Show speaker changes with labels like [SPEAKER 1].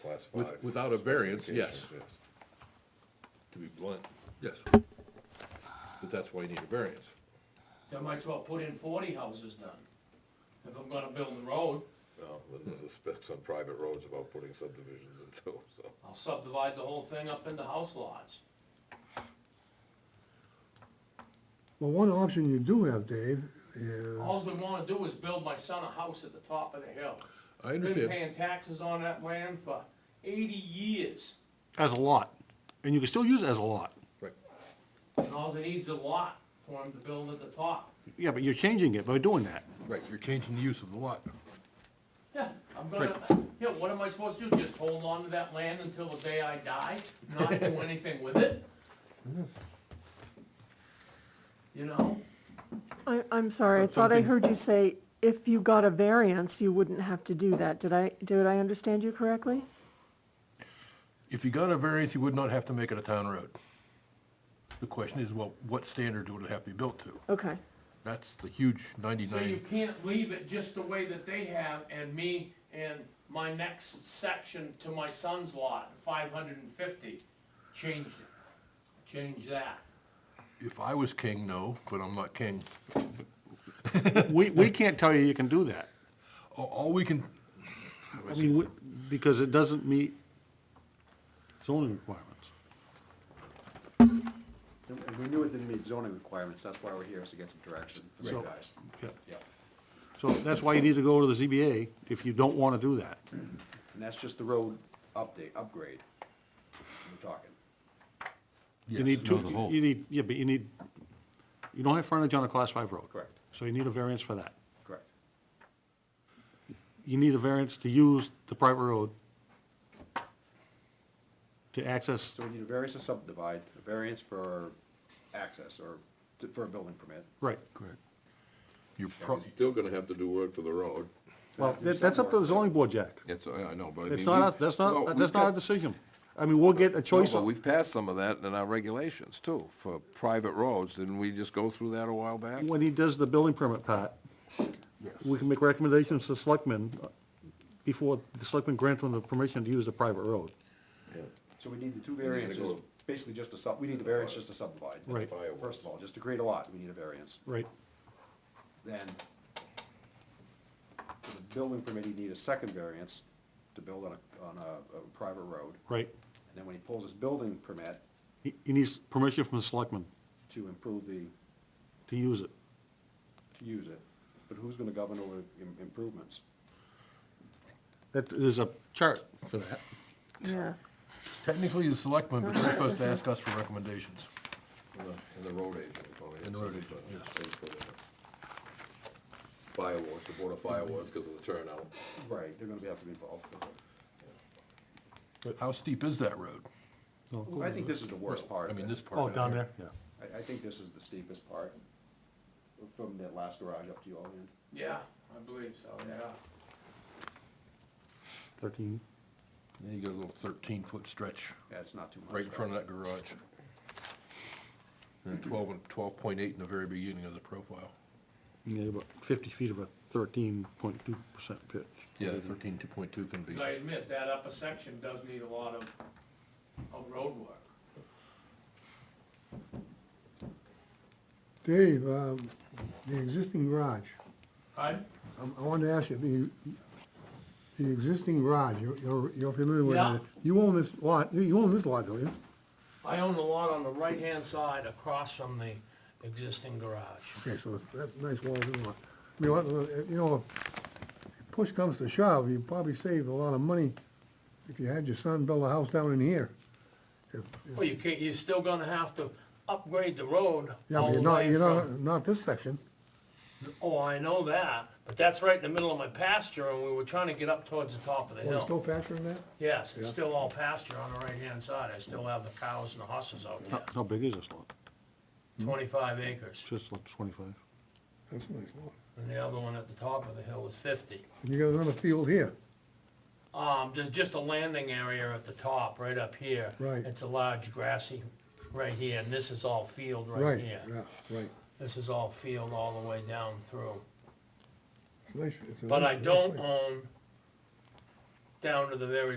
[SPEAKER 1] class
[SPEAKER 2] With-
[SPEAKER 1] five.
[SPEAKER 2] without a variance, yes.
[SPEAKER 1] Specifications, yes. To be blunt,
[SPEAKER 2] Yes. But that's why you need a variance.
[SPEAKER 3] I might as well put in forty houses then, if I'm gonna build the road.
[SPEAKER 1] no, but there's the specs on private roads about putting subdivisions in too, so.
[SPEAKER 3] I'll subdivide the whole thing up into house lots.
[SPEAKER 4] Well, one option you do have, Dave, is,
[SPEAKER 3] All we wanna do is build my son a house at the top of the hill.
[SPEAKER 2] I
[SPEAKER 3] Been
[SPEAKER 2] understand.
[SPEAKER 3] paying taxes on that land for eighty years,
[SPEAKER 5] as a lot, and you can still use it as a lot.
[SPEAKER 2] Right.
[SPEAKER 3] and all he needs is a lot for him to build at the top.
[SPEAKER 5] Yeah, but you're changing it by doing that.
[SPEAKER 2] Right, you're changing the use of the lot.
[SPEAKER 3] Yeah, I'm gonna, yeah, what am I supposed to do, just hold on to that land until the day I die, not do anything with it? You know,
[SPEAKER 6] I, I'm sorry, I thought I
[SPEAKER 2] Something-
[SPEAKER 6] heard you say if you got a variance, you wouldn't have to do that. Did I, did I understand you correctly?
[SPEAKER 2] If you got a variance, you would not have to make it a town road. The question is, well, what standards would it have to be built to?
[SPEAKER 6] Okay,
[SPEAKER 2] That's the huge
[SPEAKER 3] so you
[SPEAKER 2] ninety-nine.
[SPEAKER 3] can't leave it just the way that they have, and me and my next section to my son's lot, five hundred and fifty, change it, change that.
[SPEAKER 2] If I was king, no, but I'm not king.
[SPEAKER 5] We, we can't tell you you can do that.
[SPEAKER 2] A- All we can,
[SPEAKER 5] I mean, we- because it doesn't meet zoning requirements.
[SPEAKER 7] And and we knew it didn't meet zoning requirements, that's why we're here, is to get some direction from
[SPEAKER 5] So-
[SPEAKER 7] you guys.
[SPEAKER 5] Yeah.
[SPEAKER 7] Yeah,
[SPEAKER 5] So that's why you need to go to the ZBA if you don't want to do that.
[SPEAKER 7] and that's just the road update, upgrade we're talking.
[SPEAKER 5] You need
[SPEAKER 2] Yes,
[SPEAKER 5] two,
[SPEAKER 2] on the whole.
[SPEAKER 5] you need, yeah, but you need, you don't have frontage on a class five road.
[SPEAKER 7] Correct.
[SPEAKER 5] So you need a variance for that.
[SPEAKER 7] Correct.
[SPEAKER 5] You need a variance to use the private road to access,
[SPEAKER 7] So we need a variance to subdivide, a variance for access or to- for a building permit.
[SPEAKER 5] right.
[SPEAKER 2] correct. You're pro,
[SPEAKER 1] Still gonna have to do work to the road.
[SPEAKER 5] Well, that- that's up to the zoning board, Jack.
[SPEAKER 8] It's, I I know, but I mean.
[SPEAKER 5] It's not, us-
[SPEAKER 8] we've-
[SPEAKER 5] that's
[SPEAKER 8] no,
[SPEAKER 5] not,
[SPEAKER 8] we've
[SPEAKER 5] that's not our
[SPEAKER 8] got-
[SPEAKER 5] decision. I mean, we'll get a
[SPEAKER 8] No,
[SPEAKER 5] choice.
[SPEAKER 8] but
[SPEAKER 5] of-
[SPEAKER 8] we've passed some of that in our regulations too, for private roads. Didn't we just go through that a while back?
[SPEAKER 5] When he does the building permit part, we can make recommendations to selectmen uh, before the selectmen grant them the permission to use the private road.
[SPEAKER 7] So we need the two
[SPEAKER 1] then it
[SPEAKER 7] variances,
[SPEAKER 1] goes-
[SPEAKER 7] basically just to sub, we need a variance just to subdivide.
[SPEAKER 5] Right.
[SPEAKER 1] Firework.
[SPEAKER 7] First of all, just to create a lot, we need a variance.
[SPEAKER 5] Right.
[SPEAKER 7] Then for the building permit, you need a second variance to build on a, on a, a private road.
[SPEAKER 5] Right.
[SPEAKER 7] And then when he pulls his building permit
[SPEAKER 5] He he needs permission from the selectmen
[SPEAKER 7] to improve the,
[SPEAKER 5] to use it.
[SPEAKER 7] to use it, but who's gonna govern over im- improvements?
[SPEAKER 5] That, there's a chart for that.
[SPEAKER 6] yeah.
[SPEAKER 2] technically the selectmen, but they're supposed to ask us for recommendations.
[SPEAKER 1] And the- And the road agent. probably has
[SPEAKER 2] And the road
[SPEAKER 1] something
[SPEAKER 2] agent,
[SPEAKER 1] to- things for that. Fireworks, the board of fireworks because of the turnout.
[SPEAKER 7] Right, they're gonna be- have to be involved.
[SPEAKER 2] How steep is that road?
[SPEAKER 7] I think this is the worst part.
[SPEAKER 2] I
[SPEAKER 7] of
[SPEAKER 2] mean,
[SPEAKER 7] it.
[SPEAKER 2] this part.
[SPEAKER 5] Oh,
[SPEAKER 2] down
[SPEAKER 5] down
[SPEAKER 2] here.
[SPEAKER 5] there, yeah.
[SPEAKER 7] I, I think this is the steepest part, from that last garage up to your end.
[SPEAKER 3] Yeah, I believe so, yeah.
[SPEAKER 5] Thirteen.
[SPEAKER 2] Then you got a little thirteen-foot stretch
[SPEAKER 7] Yeah, it's not too much.
[SPEAKER 2] right in front of that garage. And twelve, and twelve point eight in the very beginning of the profile.
[SPEAKER 5] Yeah, about fifty feet of a thirteen point two percent pitch.
[SPEAKER 2] Yeah, thirteen, two point two can be,
[SPEAKER 3] Because I admit, that upper section does need a lot of, of road work.
[SPEAKER 4] Dave, um, the existing garage, Um,
[SPEAKER 3] Right?
[SPEAKER 4] I- I wanted to ask you, the, the existing garage, you're- you're, you're familiar with
[SPEAKER 3] Yeah.
[SPEAKER 4] it? You own this lot, you- you own this lot, don't you?
[SPEAKER 3] I own the lot on the right-hand side across from the existing garage.
[SPEAKER 4] Okay, so it's that nice wall, is in the lot. I mean, what- you know, if push comes to shove, you probably saved a lot of money if you had your son build a house down in here. If- if-
[SPEAKER 3] Well, you can't, you're still gonna have to upgrade the road
[SPEAKER 4] Yeah,
[SPEAKER 3] all
[SPEAKER 4] but
[SPEAKER 3] the
[SPEAKER 4] you're not,
[SPEAKER 3] way
[SPEAKER 4] you're
[SPEAKER 3] from.
[SPEAKER 4] not, not this section.
[SPEAKER 3] Oh, I know that, but that's right in the middle of my pasture, and we were trying to get up towards the top of the
[SPEAKER 4] Oh, you still
[SPEAKER 3] hill.
[SPEAKER 4] pasturing that?
[SPEAKER 3] Yes, it's
[SPEAKER 4] Yeah.
[SPEAKER 3] still all pasture on the right-hand side. I still have the cows and the horses out
[SPEAKER 5] How,
[SPEAKER 3] there,
[SPEAKER 4] Uh,
[SPEAKER 5] how big is this lot?
[SPEAKER 4] mm.
[SPEAKER 3] twenty-five acres.
[SPEAKER 5] It's just like twenty-five.
[SPEAKER 4] That's a nice lot.
[SPEAKER 3] And the other one at the top of the hill is fifty.
[SPEAKER 4] And you got another field here.
[SPEAKER 3] Um, there's just a landing area at the top, right up here.
[SPEAKER 4] Right.
[SPEAKER 3] It's a large grassy, right here, and this is all field right
[SPEAKER 4] Right,
[SPEAKER 3] here.
[SPEAKER 4] yeah, right.
[SPEAKER 3] This is all field all the way down through.
[SPEAKER 4] It's nice- it's a
[SPEAKER 3] But I
[SPEAKER 4] nice- nice
[SPEAKER 3] don't
[SPEAKER 4] place.
[SPEAKER 3] own down to the very